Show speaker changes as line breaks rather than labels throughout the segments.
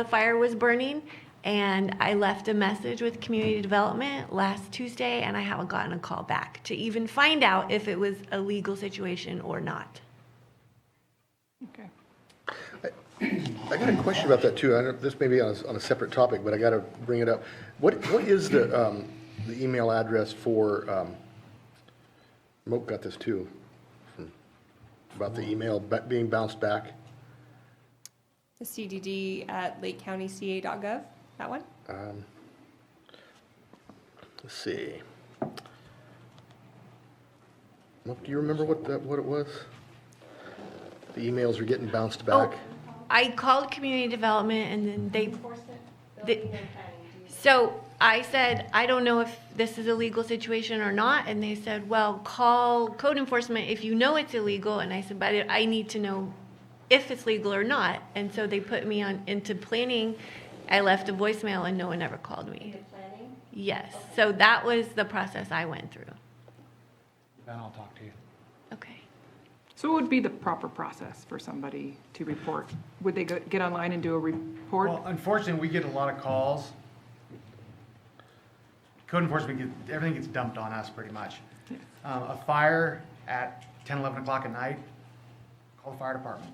The fire was burning, and I left a message with community development last Tuesday, and I haven't gotten a call back to even find out if it was a legal situation or not.
Okay.
I got a question about that too. I don't, this may be on a, on a separate topic, but I gotta bring it up. What, what is the, um, the email address for, um, Moak got this too, from- about the email ba- being bounced back?
The CDD at lakecountyca.gov, that one?
Let's see. Moak, do you remember what that, what it was? The emails were getting bounced
Oh.
back?
Oh, I called community development and then they. they- So I said, I don't know if this is a legal situation or not, and they said, well, call code enforcement if you know it's illegal, and I said, but I- I need to know if it's legal or not, and so they put me on, into planning. I left a voicemail and no one ever called me. Yes, so that was the process I went through.
Then I'll talk to you.
Okay.
So what would be the proper process for somebody to report? Would they go, get online and do a report?
Well, unfortunately, we get a lot of calls. Code enforcement, get- everything gets dumped on us pretty much. Um, A fire at 10, 11 o'clock at night, call the fire department.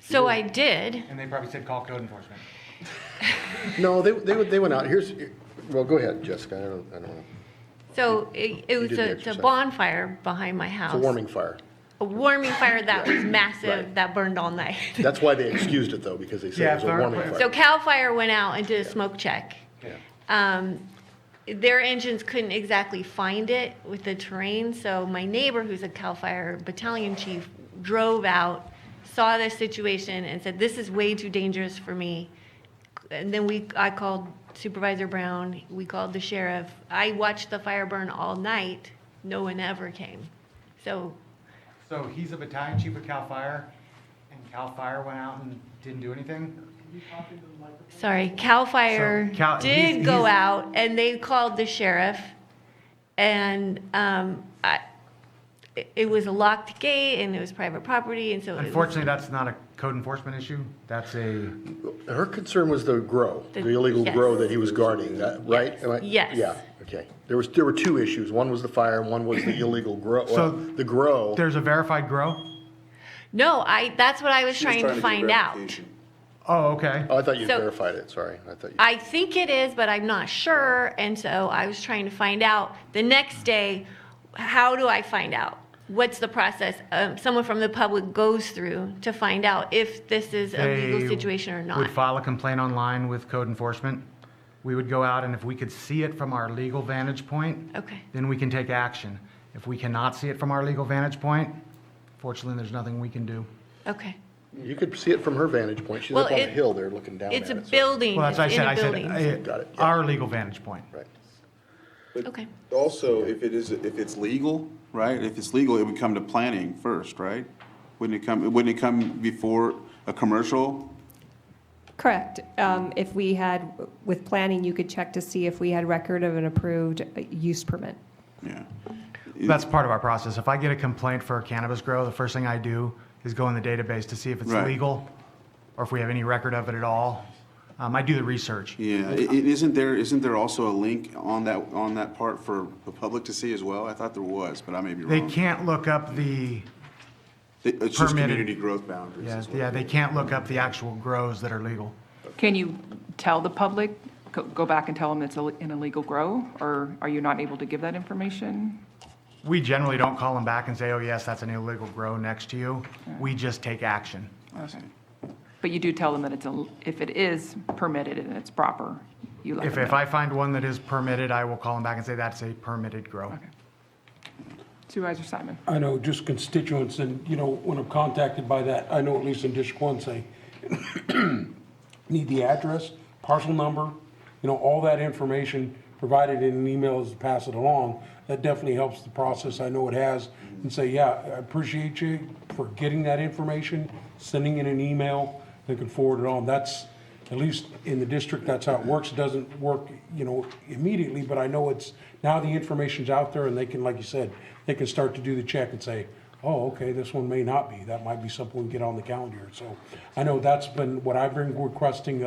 So I did.
And they probably said, call code enforcement.
No, they, they, would- they went out, here's, well, go ahead, Jessica, I don't, I don't know.
So it, it was
did the
a, it's a
exercise.
bonfire behind my house.
It's a warming fire.
a warming fire that was massive
Right.
that burned all night.
That's why they excused it though, because they said
Yeah,
it was a
fire-
warming fire.
So Cal Fire went out and did a smoke check.
Yeah.
Um, their engines couldn't exactly find it with the terrain, so my neighbor, who's a Cal Fire battalion chief, drove out, saw this situation, and said, "This is way too dangerous for me." And then we, I called Supervisor Brown. We called the sheriff. I watched the fire burn all night. No one ever came. So
So he's a battalion chief with Cal Fire, and Cal Fire went out and didn't do anything?
Sorry, Cal Fire
So, Cal-
did
he's-
go
he's-
out and they called the sheriff. And um, I, it- it was a locked gate and it was private property and so it was
Unfortunately, that's not a code enforcement issue. That's a,
Her concern was the grow, the
The-
illegal
yes.
grow that he was guarding, that- right? Am I-
Yes.
Yeah, okay. There was, there were two issues. One was the fire and one was the illegal grow, well,
So
the grow.
there's a verified grow?
no, I that's what I was
She was
trying to
get
find out.
verification.
Oh, okay.
Oh, I thought you
so-
verified it, sorry. I thought you,
I think it is, but I'm not sure. And so I was trying to find out the next day, how do I find out? What's the process um, someone from the public goes through to find out if this is a legal
they
situation or not?
Would file a complaint online with code enforcement. We would go out and if we could see it from our legal vantage point.
Okay.
Then we can take action. If we cannot see it from our legal vantage point, fortunately, there's nothing we can do.
Okay.
you could see it from her vantage point. She's
Well,
up on a
it-
hill there looking down at it.
It's a
so-
building,
Well,
it's
that's what I
in
said,
a
I
building.
said,
Got it,
uh,
yeah.
our legal vantage point.
Right.
Okay.
Also, if it is, if it's legal, right, if it's legal, it would come to planning first, right? Wouldn't it come, wouldn't it come before a commercial?
Correct. Um, If we had, with planning, you could check to see if we had record of an approved uh, use permit.
Yeah.
That's part of our process. If I get a complaint for a cannabis grow, the first thing I do is go in the database to see if it's
Right.
legal or if we have any record of it at all. Um, I do the research.
Yeah, i- i- isn't there, isn't there also a link on that, on that part for the public to see as well? I thought there was, but I may be
They
wrong.
can't look up the
It- It's just
permitted-
community growth boundaries
Yeah,
as well.
yeah, they can't look up the actual grows that are legal.
Can you tell the public, go- go back and tell them it's a- an illegal grow? Or are you not able to give that information?
We generally don't call them back and say, oh, yes, that's an illegal grow next to you. We just take action.
I see.
But you do tell them that it's, a- if it is permitted and it's proper, you let
If,
them
if
know.
I find one that is permitted, I will call them back and say, that's a permitted grow.
Supervisor Simon?
I know just constituents and, you know, when I'm contacted by that, I know at least in District One say, need the address, parcel number, you know, all that information provided in an email is to pass it along. That definitely helps the process. I know it has. And say, yeah, I appreciate you for getting that information, sending it an email, they can forward it on. That's, at least in the district, that's how it works. It doesn't work, you know, immediately, but I know it's, now the information's out there and they can, like you said, they can start to do the check and say, oh, okay, this one may not be. That might be something we can get on the calendar. So I know that's been what I've been requesting